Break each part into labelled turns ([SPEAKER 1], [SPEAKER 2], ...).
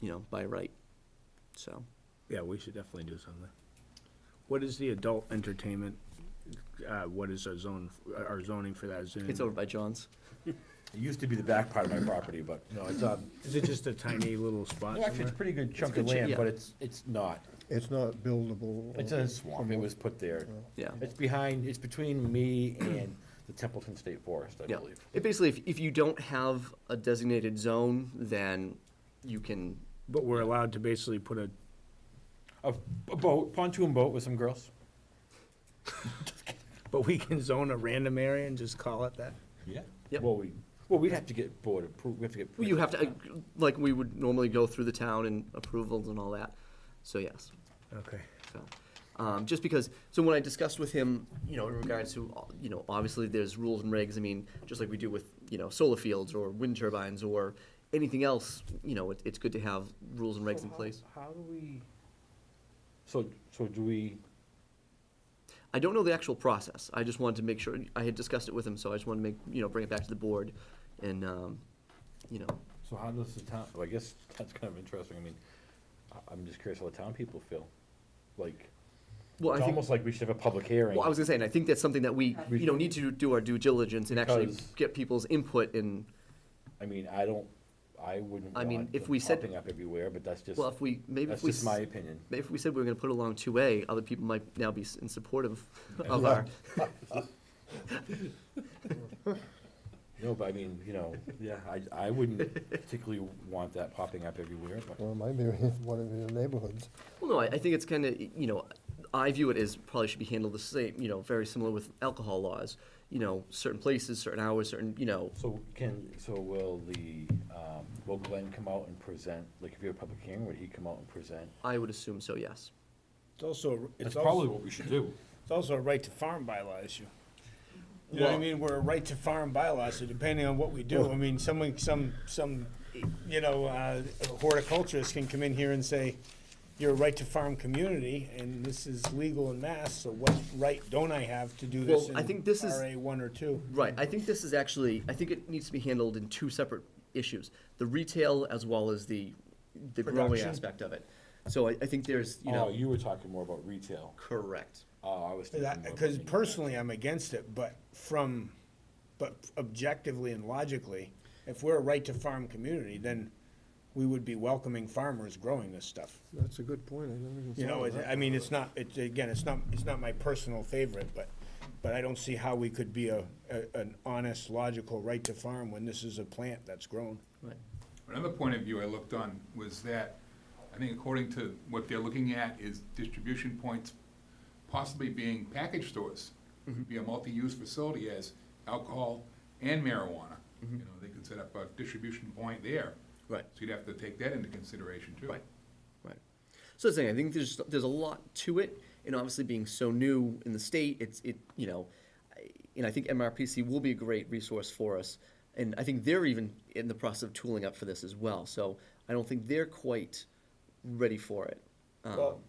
[SPEAKER 1] you know, by right. So,
[SPEAKER 2] Yeah, we should definitely do something. What is the adult entertainment, uh, what is our zone, our zoning for that? Is it-
[SPEAKER 1] it's over by John's.
[SPEAKER 3] It used to be the back part of my property, but no, it's, um,
[SPEAKER 2] Is it just a tiny little spot
[SPEAKER 3] well, actually,
[SPEAKER 2] somewhere?
[SPEAKER 3] it's a pretty good chunk
[SPEAKER 1] good
[SPEAKER 3] of
[SPEAKER 1] ch-
[SPEAKER 3] land,
[SPEAKER 1] yeah.
[SPEAKER 3] but it's, it's not.
[SPEAKER 4] It's not buildable.
[SPEAKER 3] It's a swamp, it was put there.
[SPEAKER 1] Yeah.
[SPEAKER 3] It's behind, it's between me and the Templeton State Forest, I
[SPEAKER 1] Yeah.
[SPEAKER 3] believe.
[SPEAKER 1] It basically, if, if you don't have a designated zone, then you can,
[SPEAKER 2] But we're allowed to basically put a,
[SPEAKER 3] A a boat, pontoon boat with some girls.
[SPEAKER 2] but we can zone a random area and just call it that?
[SPEAKER 3] Yeah.
[SPEAKER 1] Yep.
[SPEAKER 3] Well, we, well, we'd have to get board approved, we have to get.
[SPEAKER 1] you have to, uh, like, we would normally go through the town and approvals and all that. So yes.
[SPEAKER 2] Okay.
[SPEAKER 1] So, um, just because, so when I discussed with him, you know, in regards to, you know, obviously there's rules and regs, I mean, just like we do with, you know, solar fields or wind turbines or anything else, you know, it, it's good to have rules and regs in place.
[SPEAKER 3] How do we?
[SPEAKER 1] uh,
[SPEAKER 3] So, so do we,
[SPEAKER 1] I don't know the actual process, I just wanted to make sure, I had discussed it with him, so I just wanted to make, you know, bring it back to the board and, um, you know,
[SPEAKER 3] so how does the town, well, I guess that's kind of interesting, I mean, I- I'm just curious how the town people feel. Like,
[SPEAKER 1] well,
[SPEAKER 3] it's
[SPEAKER 1] I think,
[SPEAKER 3] almost like we should have a public hearing.
[SPEAKER 1] well, I was gonna say, and I think that's something that we, you know, need to do our due diligence and actually
[SPEAKER 3] Because-
[SPEAKER 1] get people's input and,
[SPEAKER 3] I mean, I don't, I wouldn't
[SPEAKER 1] I mean,
[SPEAKER 3] want
[SPEAKER 1] if
[SPEAKER 3] them
[SPEAKER 1] we said-
[SPEAKER 3] popping up everywhere, but that's just,
[SPEAKER 1] well, if we, maybe
[SPEAKER 3] that's
[SPEAKER 1] if we.
[SPEAKER 3] just my opinion.
[SPEAKER 1] Maybe if we said we were gonna put it along two A, other people might now be s- in support of, of our,
[SPEAKER 3] No, but I mean, you know, yeah, I, I wouldn't particularly want that popping up everywhere, but,
[SPEAKER 4] Well, it might be one of your neighborhoods.
[SPEAKER 1] well, no, I, I think it's kinda, you know, I view it as probably should be handled the same, you know, very similar with alcohol laws. You know, certain places, certain hours, certain, you know,
[SPEAKER 3] so can, so will the, um, will Glenn come out and present, like, if you have a public hearing, would he come out and present?
[SPEAKER 1] I would assume so, yes.
[SPEAKER 2] It's also, it's
[SPEAKER 3] That's probably
[SPEAKER 2] also,
[SPEAKER 3] what we should do.
[SPEAKER 2] it's also a right to farm bylaw issue. You know what I
[SPEAKER 3] Well-
[SPEAKER 2] mean? We're a right to farm bylaw, so depending on what we do, I mean, someone, some, some, you know, uh, horticulturist can come in here and say, you're a right to farm community, and this is legal in mass, so what right don't I have to do this
[SPEAKER 1] Well,
[SPEAKER 2] in
[SPEAKER 1] I think this is-
[SPEAKER 2] RA one or two?
[SPEAKER 1] Right, I think this is actually, I think it needs to be handled in two separate issues, the retail as well as the, the growing
[SPEAKER 2] Production.
[SPEAKER 1] aspect of it. So I, I think there's, you know,
[SPEAKER 3] Oh, you were talking more about retail.
[SPEAKER 1] correct.
[SPEAKER 3] Oh, I was thinking more about
[SPEAKER 2] Because
[SPEAKER 3] manufacturing.
[SPEAKER 2] personally, I'm against it, but from, but objectively and logically, if we're a right-to-farm community, then we would be welcoming farmers growing this stuff.
[SPEAKER 4] That's a good point, I never even
[SPEAKER 2] You know,
[SPEAKER 4] thought of
[SPEAKER 2] it-
[SPEAKER 4] that.
[SPEAKER 2] I mean, it's not, it's, again, it's not, it's not my personal favorite, but, but I don't see how we could be a, a- an honest, logical right-to-farm when this is a plant that's grown.
[SPEAKER 1] Right.
[SPEAKER 5] Another point of view I looked on was that, I think according to what they're looking at is distribution points possibly being package stores.
[SPEAKER 1] Mm-hmm.
[SPEAKER 5] Could Be a multi-use facility as alcohol and marijuana. You know, they could set up a distribution point there.
[SPEAKER 1] Mm-hmm. Right.
[SPEAKER 5] So you'd have to take that into consideration too.
[SPEAKER 1] Right, right. So that's the thing, I think there's, there's a lot to it, and obviously being so new in the state, it's, it, you know, I- and I think MRPC will be a great resource for us, and I think they're even in the process of tooling up for this as well, so I don't think they're quite ready for it. Um,
[SPEAKER 2] Well,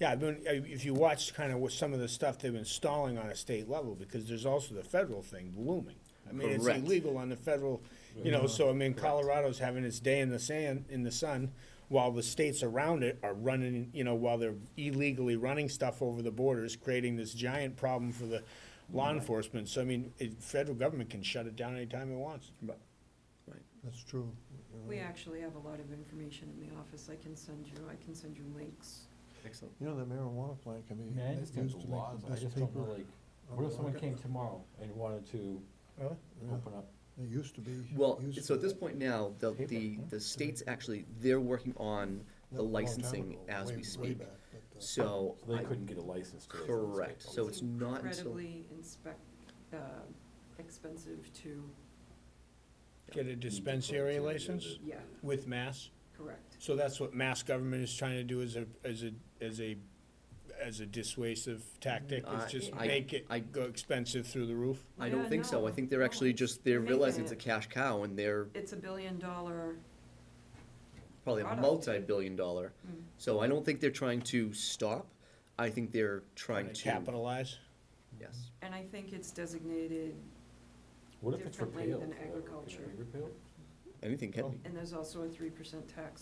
[SPEAKER 2] yeah, I've been, I- if you watch kind of what some of the stuff they've been stalling on a state level, because there's also the federal thing blooming. I mean, it's
[SPEAKER 1] Correct.
[SPEAKER 2] illegal on the federal, you know, so I mean, Colorado's having its day in the sand, in the sun, while the states around it are running, you know, while they're illegally running stuff over the borders, creating this giant problem for the law enforcement. So I mean, it, federal government can shut it down anytime it wants.
[SPEAKER 1] Right.
[SPEAKER 4] That's true. Uh,
[SPEAKER 6] We actually have a lot of information in the office. I can send you, I can send you links.
[SPEAKER 1] Excellent.
[SPEAKER 4] You know, the marijuana plant can be.
[SPEAKER 3] I mean, I
[SPEAKER 4] it
[SPEAKER 3] understand
[SPEAKER 4] used
[SPEAKER 3] the
[SPEAKER 4] to make
[SPEAKER 3] laws,
[SPEAKER 4] the
[SPEAKER 3] I
[SPEAKER 4] best
[SPEAKER 3] just don't know,
[SPEAKER 4] paper
[SPEAKER 3] like,
[SPEAKER 4] on
[SPEAKER 3] what
[SPEAKER 4] the
[SPEAKER 3] if someone
[SPEAKER 4] market.
[SPEAKER 3] came tomorrow and wanted to
[SPEAKER 4] Yeah,
[SPEAKER 3] open up?
[SPEAKER 4] It used to be.
[SPEAKER 1] Well,
[SPEAKER 4] used
[SPEAKER 1] so at
[SPEAKER 4] to-
[SPEAKER 1] this point now, the, the, the states actually, they're working on
[SPEAKER 4] not
[SPEAKER 1] the
[SPEAKER 4] a long time
[SPEAKER 1] licensing
[SPEAKER 4] ago,
[SPEAKER 1] as
[SPEAKER 4] way-
[SPEAKER 1] we
[SPEAKER 4] way
[SPEAKER 1] speak,
[SPEAKER 4] back, but, uh,
[SPEAKER 1] so.
[SPEAKER 3] So they
[SPEAKER 1] I-
[SPEAKER 3] couldn't get a license to.
[SPEAKER 1] Correct, so it's not until.
[SPEAKER 6] Incredibly inspec uh, expensive to,
[SPEAKER 2] Get a dispensary license
[SPEAKER 6] yeah,
[SPEAKER 2] with mass.
[SPEAKER 6] correct.
[SPEAKER 2] So that's what mass government is trying to do as a, as a, as a, as a dissuasive tactic,
[SPEAKER 1] Uh, I-
[SPEAKER 2] is just
[SPEAKER 6] I-
[SPEAKER 2] make it
[SPEAKER 1] I-
[SPEAKER 2] go expensive through the roof?
[SPEAKER 1] I don't
[SPEAKER 6] Yeah,
[SPEAKER 1] think so.
[SPEAKER 6] no,
[SPEAKER 1] I think they're
[SPEAKER 6] no,
[SPEAKER 1] actually just, they're
[SPEAKER 6] making
[SPEAKER 1] realizing it's a
[SPEAKER 6] it.
[SPEAKER 1] cash cow and they're
[SPEAKER 6] It's a billion dollar,
[SPEAKER 1] probably a
[SPEAKER 6] Product.
[SPEAKER 1] multi-billion dollar.
[SPEAKER 6] Mm.
[SPEAKER 1] So I don't think they're trying to stop. I think they're trying
[SPEAKER 2] Trying to
[SPEAKER 1] to,
[SPEAKER 2] capitalize?
[SPEAKER 1] yes.
[SPEAKER 6] and I think it's designated,
[SPEAKER 3] What if it's
[SPEAKER 6] differently
[SPEAKER 3] repealed?
[SPEAKER 6] than
[SPEAKER 3] forever? Can it be
[SPEAKER 6] agriculture.
[SPEAKER 3] repealed?
[SPEAKER 1] Anything can be.
[SPEAKER 6] and there's also a three percent tax